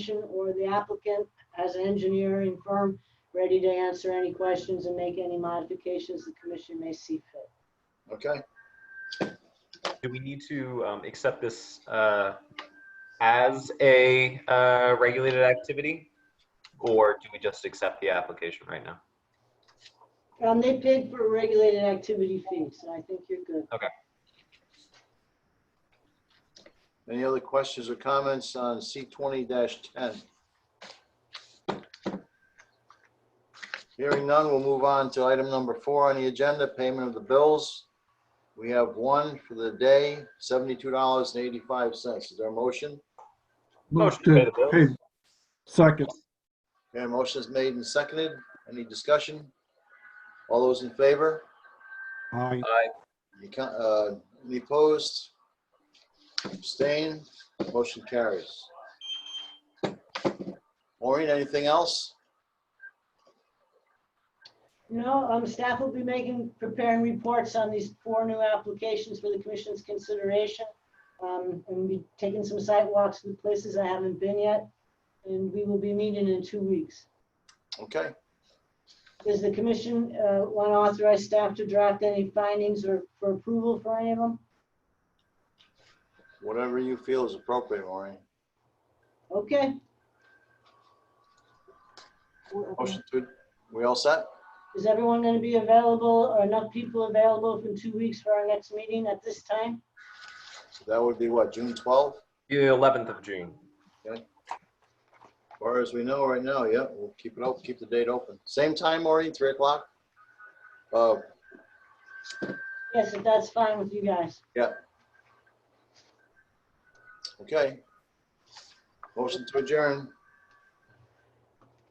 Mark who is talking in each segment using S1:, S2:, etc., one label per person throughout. S1: presentation or the applicant as an engineering firm ready to answer any questions and make any modifications the commission may see fit.
S2: Okay,
S3: Do we need to um, accept this uh, as a uh, regulated activity? Or do we just accept the application right now?
S1: Um, they paid for regulated activity fees, so I think you're good.
S2: any other questions or comments on C twenty ten? Hearing none, we'll move on to item number four on the agenda, payment of the bills. We have one for the day, seventy-two dollars and eighty-five cents. Is there a motion?
S3: Motion to pay the bills.
S4: pay. Second.
S2: Okay, motion is made and seconded. Any discussion? All those in favor?
S4: Aye.
S2: Any co- uh, Any opposed? Abstain? Motion carries. Maureen, anything else?
S1: No, um, staff will be making, preparing reports on these four new applications for the commission's consideration. Um, and be taking some site walks to places I haven't been yet, and we will be meeting in two weeks.
S2: Okay,
S1: Does the commission, uh, want to authorize staff to draft any findings or for approval for any of them?
S2: whatever you feel is appropriate, Maureen.
S1: Okay.
S2: Motion to, we all set?
S1: Is everyone going to be available or enough people available for two weeks for our next meeting at this time?
S2: So That would be what, June 12th?
S3: The 11th of June.
S2: Or as we know right now, yeah, we'll keep it open, keep the date open. Same time, Maureen, 3 o'clock? Uh,
S1: Yes, if that's fine with you guys.
S2: Okay. Motion to adjourn.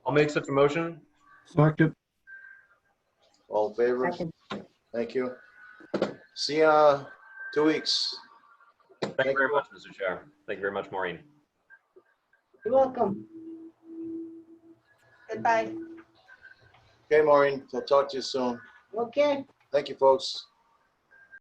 S3: I'll make such a motion.
S4: Second.
S2: All in favor? Thank you. See ya, two weeks.
S3: Thank you very much, Mr. Chair. Thank you very much, Maureen.
S1: You're welcome.
S5: Goodbye.
S2: Okay, Maureen, I'll talk to you soon.
S1: Okay,
S2: Thank you, folks.